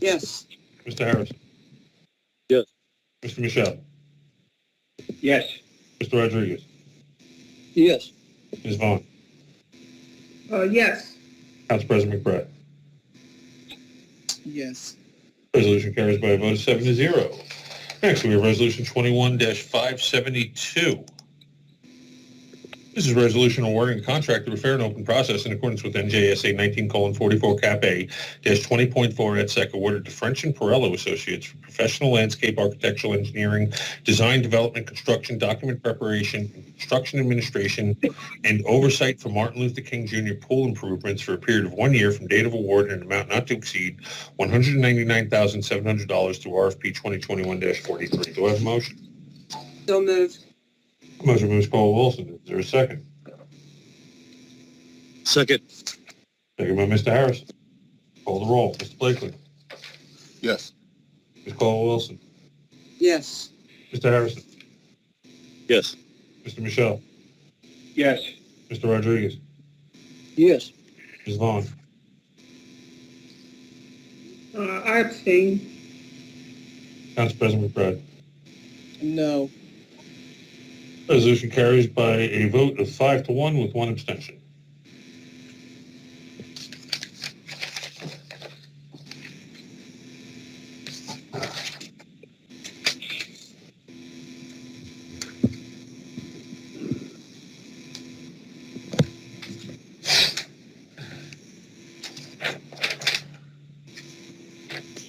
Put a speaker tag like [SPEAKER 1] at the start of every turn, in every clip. [SPEAKER 1] Yes.
[SPEAKER 2] Mr. Harris?
[SPEAKER 3] Yes.
[SPEAKER 2] Mr. Michelle?
[SPEAKER 1] Yes.
[SPEAKER 2] Mr. Rodriguez?
[SPEAKER 3] Yes.
[SPEAKER 2] Ms. Vaughn?
[SPEAKER 4] Uh, yes.
[SPEAKER 2] Council President McBride?
[SPEAKER 1] Yes.
[SPEAKER 2] Resolution carries by a vote of seven to zero. Next, we have Resolution 21-572. This is a resolution awarding a contract through a fair and open process in accordance with NJSA 19:44 Cap A dash 20.4 et sec awarded to French and Perello Associates for professional landscape architectural engineering, design, development, construction, document preparation, construction administration, and oversight for Martin Luther King Jr. pool improvements for a period of one year from date of award and an amount not to exceed $199,700 through RFP 2021-43. Do I have a motion?
[SPEAKER 4] So move.
[SPEAKER 2] Motion by Ms. Caldwell Wilson. Is there a second?
[SPEAKER 3] Second.
[SPEAKER 2] Second by Mr. Harrison. Call the roll. Mr. Blakely.
[SPEAKER 3] Yes.
[SPEAKER 2] Ms. Caldwell Wilson.
[SPEAKER 4] Yes.
[SPEAKER 2] Mr. Harrison.
[SPEAKER 3] Yes.
[SPEAKER 2] Mr. Michelle.
[SPEAKER 1] Yes.
[SPEAKER 2] Mr. Rodriguez.
[SPEAKER 3] Yes.
[SPEAKER 2] Ms. Vaughn.
[SPEAKER 4] Uh, I abstain.
[SPEAKER 2] Council President McBride.
[SPEAKER 1] No.
[SPEAKER 2] Resolution carries by a vote of five to one with one abstention.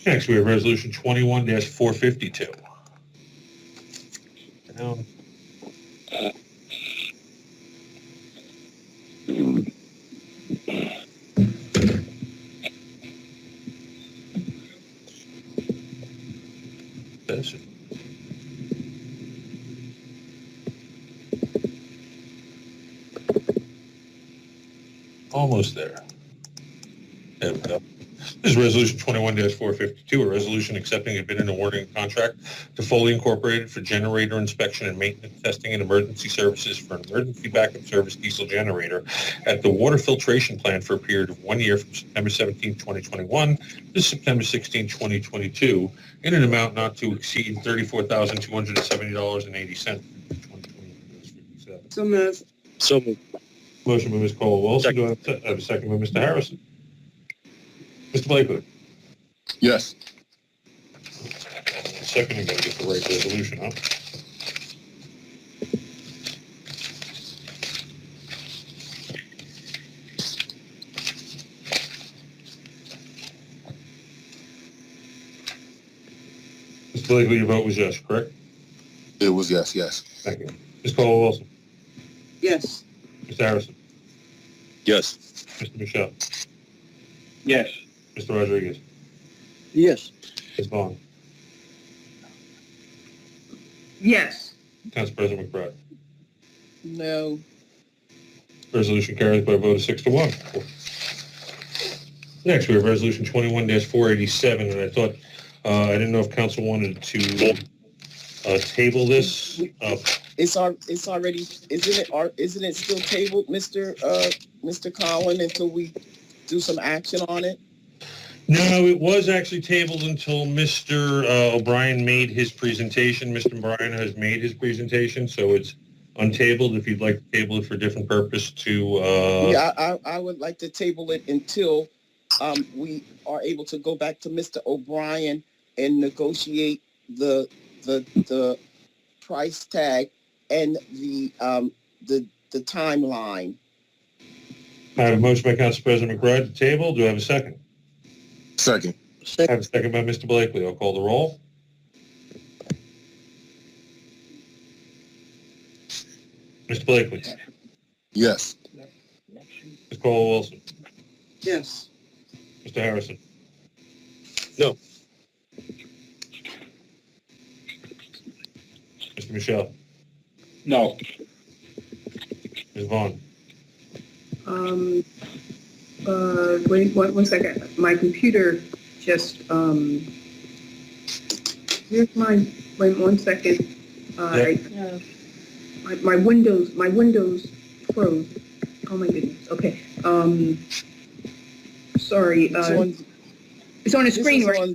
[SPEAKER 2] Next, we have Resolution 21-452. Down. Benson. Almost there. There we go. This is Resolution 21-452, a resolution accepting a bid and awarding a contract to Foley Incorporated for generator inspection and maintenance testing and emergency services for an emergency backup service diesel generator at the water filtration plant for a period of one year from September 17, 2021 to September 16, 2022, in an amount not to exceed $34,270.80.
[SPEAKER 4] So move.
[SPEAKER 3] So moved.
[SPEAKER 2] Motion by Ms. Caldwell Wilson. Do I have a- I have a second by Mr. Harrison? Mr. Blakely.
[SPEAKER 3] Yes.
[SPEAKER 2] Second, I'm going to get the right resolution up. Mr. Blakely, your vote was yes, correct?
[SPEAKER 5] It was yes, yes.
[SPEAKER 2] Thank you. Ms. Caldwell Wilson,
[SPEAKER 4] Yes.
[SPEAKER 2] Mr. Harrison,
[SPEAKER 3] Yes.
[SPEAKER 2] Mr. Michelle,
[SPEAKER 1] Yes.
[SPEAKER 2] Mr. Rodriguez,
[SPEAKER 3] Yes.
[SPEAKER 2] Ms. Vaughn,
[SPEAKER 4] Yes.
[SPEAKER 2] Council President McBride.
[SPEAKER 1] No.
[SPEAKER 2] Resolution carries by a vote of six to one. Next, we have Resolution 21-487, and I thought, uh, I didn't know if council wanted to uh, table this. Uh,
[SPEAKER 1] It's al- it's already, isn't it, ar- isn't it still tabled, Mr. uh, Mr. Collin, until we do some action on it?
[SPEAKER 2] No, it was actually tabled until Mr. uh, O'Brien made his presentation. Mr. O'Brien has made his presentation, so it's untabled. If you'd like to table it for a different purpose to, uh,
[SPEAKER 1] Yeah, I, I I would like to table it until, um, we are able to go back to Mr. O'Brien and negotiate the, the, the price tag and the, um, the, the timeline.
[SPEAKER 2] I have a motion by Council President McBride to table. Do I have a second?
[SPEAKER 5] Second,
[SPEAKER 2] I have a second by Mr. Blakely. I'll call the roll. Mr. Blakely.
[SPEAKER 5] yes.
[SPEAKER 2] Ms. Cole Wilson.
[SPEAKER 4] Yes.
[SPEAKER 2] Mr. Harrison.
[SPEAKER 3] No.
[SPEAKER 2] Mr. Michelle.
[SPEAKER 3] No.
[SPEAKER 2] Ms. Vaughn.
[SPEAKER 6] Um, uh, wait, one, one second. My computer just, um, here's my, wait one second. Uh, I- My, my windows, my windows froze. Oh my goodness. Okay. Um, sorry,
[SPEAKER 1] It's
[SPEAKER 6] uh,
[SPEAKER 1] on-
[SPEAKER 6] it's on a
[SPEAKER 1] this
[SPEAKER 6] screen
[SPEAKER 1] is
[SPEAKER 6] right
[SPEAKER 1] on